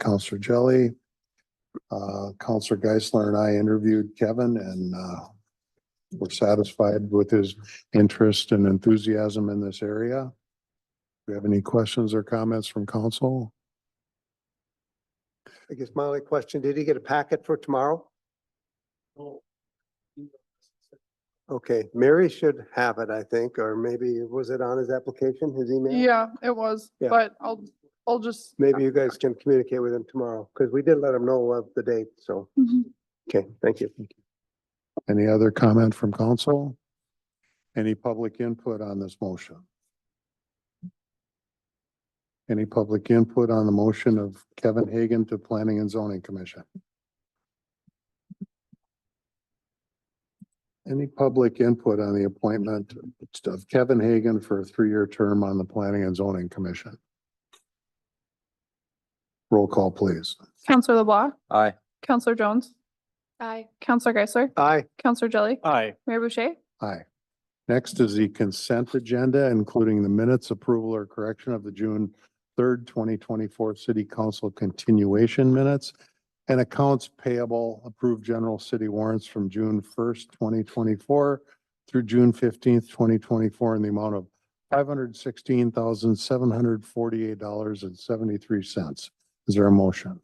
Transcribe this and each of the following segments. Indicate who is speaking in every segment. Speaker 1: Counselor Jelly. Uh, Counselor Geisler and I interviewed Kevin and, uh, were satisfied with his interest and enthusiasm in this area. Do you have any questions or comments from council?
Speaker 2: I guess my only question, did he get a packet for tomorrow? Okay, Mary should have it, I think, or maybe was it on his application, his email?
Speaker 3: Yeah, it was,
Speaker 2: Yeah.
Speaker 3: but I'll, I'll just.
Speaker 2: Maybe you guys can communicate with him tomorrow, because we did let him know of the date, so,
Speaker 3: Mhm.
Speaker 2: okay, thank you.
Speaker 1: Any other comment from council? Any public input on this motion? Any public input on the motion of Kevin Hagan to Planning and Zoning Commission? Any public input on the appointment of Kevin Hagan for a three-year term on the Planning and Zoning Commission? Roll call, please.
Speaker 3: Counselor LeBlanc,
Speaker 4: Aye.
Speaker 3: Counselor Jones. Aye. Counselor Geisler,
Speaker 2: Aye,
Speaker 3: Counselor Jelly,
Speaker 4: Aye.
Speaker 3: Mayor Boucher,
Speaker 1: Aye. Next is the consent agenda, including the minutes approval or correction of the June third, twenty twenty-four city council continuation minutes and accounts payable approved general city warrants from June first, twenty twenty-four through June fifteenth, twenty twenty-four in the amount of five hundred sixteen thousand, seven hundred forty-eight dollars and seventy-three cents. Is there a motion?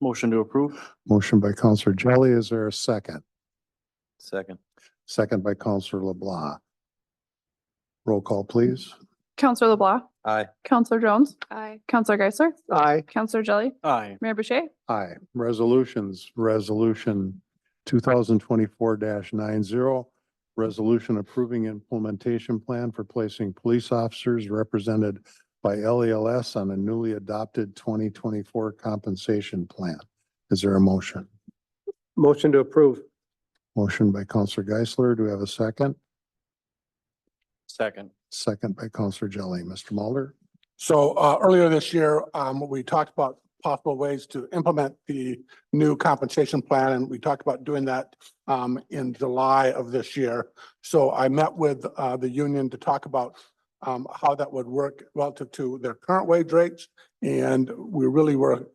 Speaker 4: Motion to approve.
Speaker 1: Motion by Counselor Jelly. Is there a second?
Speaker 4: Second.
Speaker 1: Second by Counselor LeBlanc. Roll call, please.
Speaker 3: Counselor LeBlanc,
Speaker 4: Aye.
Speaker 3: Counselor Jones. Aye. Counselor Geisler,
Speaker 2: aye,
Speaker 3: Counselor Jelly,
Speaker 4: Aye.
Speaker 3: Mayor Boucher,
Speaker 1: Aye. Resolutions, resolution two thousand twenty-four nine zero. Resolution approving implementation plan for placing police officers represented by LELS on a newly adopted twenty twenty-four compensation plan. Is there a motion?
Speaker 2: motion to approve,
Speaker 1: Motion by Counselor Geisler. Do we have a second?
Speaker 4: Second.
Speaker 1: Second by Counselor Jelly. Mr. Mulder?
Speaker 5: So uh, earlier this year, um, we talked about possible ways to implement the new compensation plan, and we talked about doing that um, in July of this year. So I met with uh, the union to talk about um, how that would work relative to their current wage rates. And we really were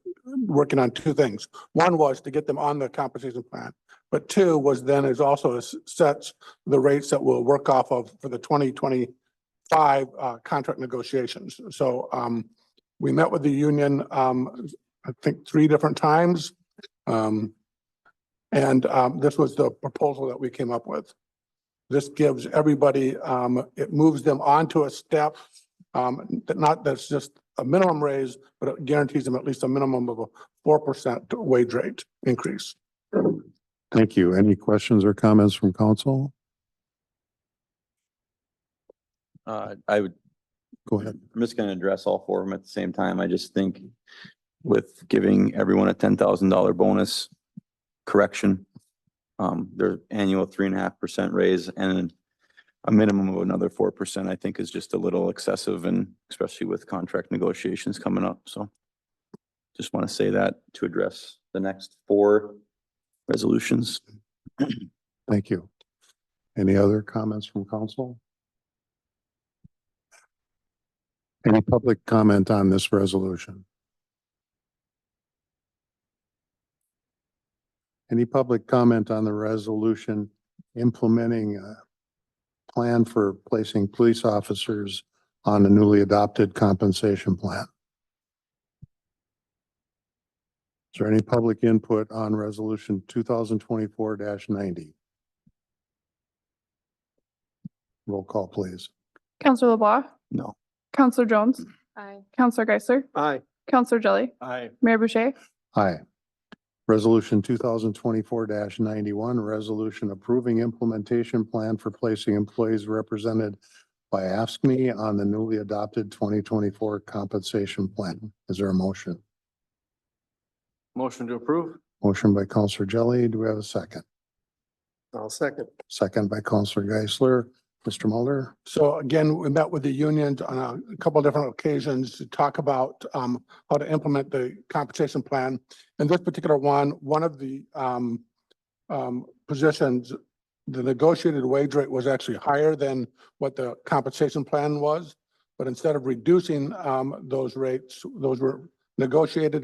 Speaker 5: working on two things. One was to get them on the compensation plan. But two was then is also s- sets the rates that we'll work off of for the twenty twenty five uh, contract negotiations. So um, we met with the union, um, I think, three different times. Um, And um, this was the proposal that we came up with. This gives everybody, um, it moves them onto a step, um, that not, that's just a minimum raise, but it guarantees them at least a minimum of a four percent wage rate increase.
Speaker 1: Thank you. Any questions or comments from council?
Speaker 4: Uh, I would,
Speaker 1: Go ahead.
Speaker 4: I'm just gonna address all four of them at the same time. I just think with giving everyone a ten thousand dollar bonus correction, um, their annual three and a half percent raise and a minimum of another four percent, I think is just a little excessive and especially with contract negotiations coming up, so. Just want to say that to address the next four resolutions.
Speaker 1: Thank you. Any other comments from council? Any public comment on this resolution? Any public comment on the resolution implementing a plan for placing police officers on a newly adopted compensation plan? Is there any public input on resolution two thousand twenty-four ninety? Roll call, please.
Speaker 3: Counselor LeBlanc,
Speaker 4: No.
Speaker 3: Counselor Jones. Aye. Counselor Geisler,
Speaker 2: aye,
Speaker 3: Counselor Jelly,
Speaker 4: Aye.
Speaker 3: Mayor Boucher,
Speaker 1: Aye. Resolution two thousand twenty-four ninety-one, resolution approving implementation plan for placing employees represented by AFSCME on the newly adopted twenty twenty-four compensation plan. Is there a motion?
Speaker 4: Motion to approve?
Speaker 1: Motion by Counselor Jelly. Do we have a second?
Speaker 2: I'll second,
Speaker 1: Second by Counselor Geisler. Mr. Mulder?
Speaker 5: So again, we met with the union on a couple different occasions to talk about um how to implement the compensation plan. In this particular one, one of the um um positions, the negotiated wage rate was actually higher than what the compensation plan was. But instead of reducing um those rates, those were negotiated